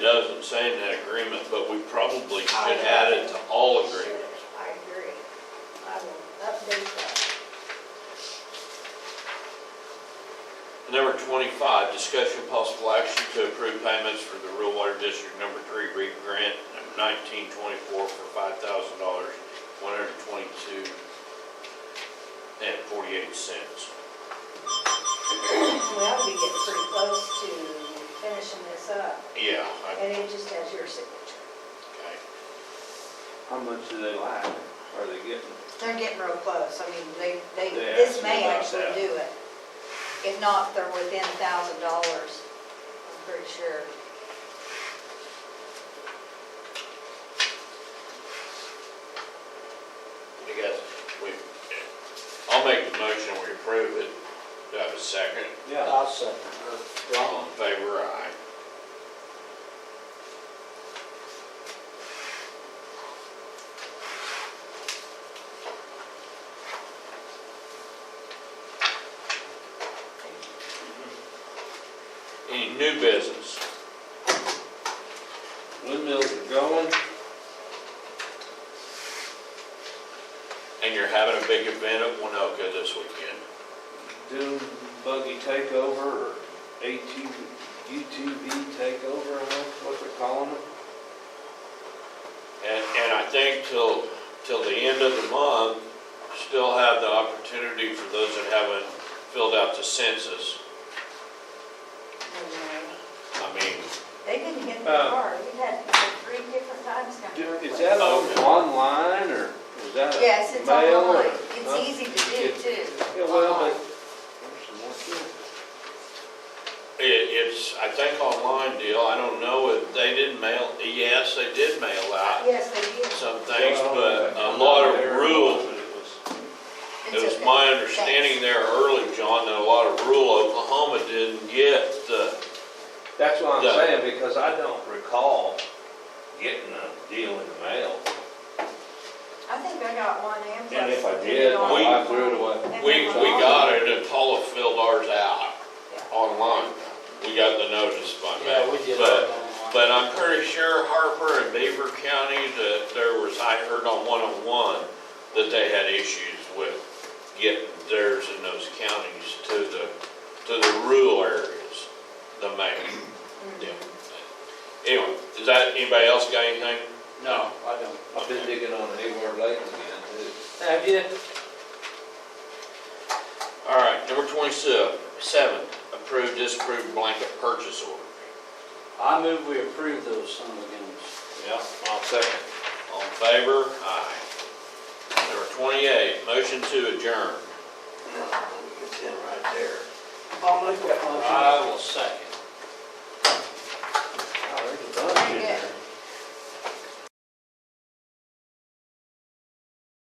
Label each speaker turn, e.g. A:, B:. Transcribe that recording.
A: say in that agreement, but we probably
B: I
A: should
B: know.
A: add it to all agreements.
B: I agree. I will update that.
A: Number twenty-five, discussion of possible action to approve payments for the Rural Water District Number Three REAP Grant number nineteen twenty-four for five thousand dollars, one hundred twenty-two and forty-eight cents.
B: Well, we get pretty close to finishing this up,
A: Yeah, I-
B: and it just has your signature.
A: okay.
C: How much do they like? Are they getting?
B: They're getting real close, I mean, they, they,
C: They
B: this
C: asked
B: may
C: me about
B: actually
C: that.
B: do it. If not, they're within a thousand dollars, I'm pretty sure.
A: I guess we, I'll make the motion, we approve it. Do I have a second?
C: Yeah.
D: I'll second her.
A: All in favor, aye. Any new business?
C: Windmills are going.
A: And you're having a big event at Winoka this weekend?
C: Dune buggy takeover or ATV, UTV takeover, I don't know what they're calling it.
A: And, and I think till, till the end of the month, still have the opportunity for those that haven't filled out the census. I mean,
B: They didn't get the
C: Uh,
B: car, we had three different times
C: Do-
B: coming to
C: Is
B: replace.
C: that on-
A: Okay.
C: online or is that a mail?
B: Yes, it's
C: or-
B: online,
C: huh?
B: it's easy to do too.
C: Yeah, well, but.
B: Online.
C: There's some more to it.
A: it, it's, I think online deal, I don't know if they didn't mail, yes, they did mail out
B: Yes, they did.
A: some things,
C: Well,
A: but a lot of
C: there it
A: rural,
C: was, but it was-
A: it
B: It's
A: was
B: okay.
A: my understanding there early, John, that a lot of rural Oklahoma didn't get the,
C: That's what I'm
A: Yeah.
C: saying, because I don't recall getting a deal in the mail.
B: I think I got one and.
C: And if I did, my
A: We-
C: wife threw it away.
A: we, we got it and Paula filled ours out online. We got the notice by mail.
D: Yeah, we did.
A: But
D: that
A: But I'm pretty sure Harper and Beaver County, that there was, I heard on 101, that they had issues with getting theirs in those counties to the, to the rural areas, the main. yeah. Anyway, is that, anybody else got anything?
D: online. No, I don't.
C: I've been digging on Hayward Lake again, too.
D: Have you?
A: All right, number 27, approve, disapprove blanket purchase order.
D: I move we approve those summergames.
C: Yeah, I'll second.
A: All in favor? Aye. Number 28, motion to adjourn.
C: It's in right there.
D: I will second.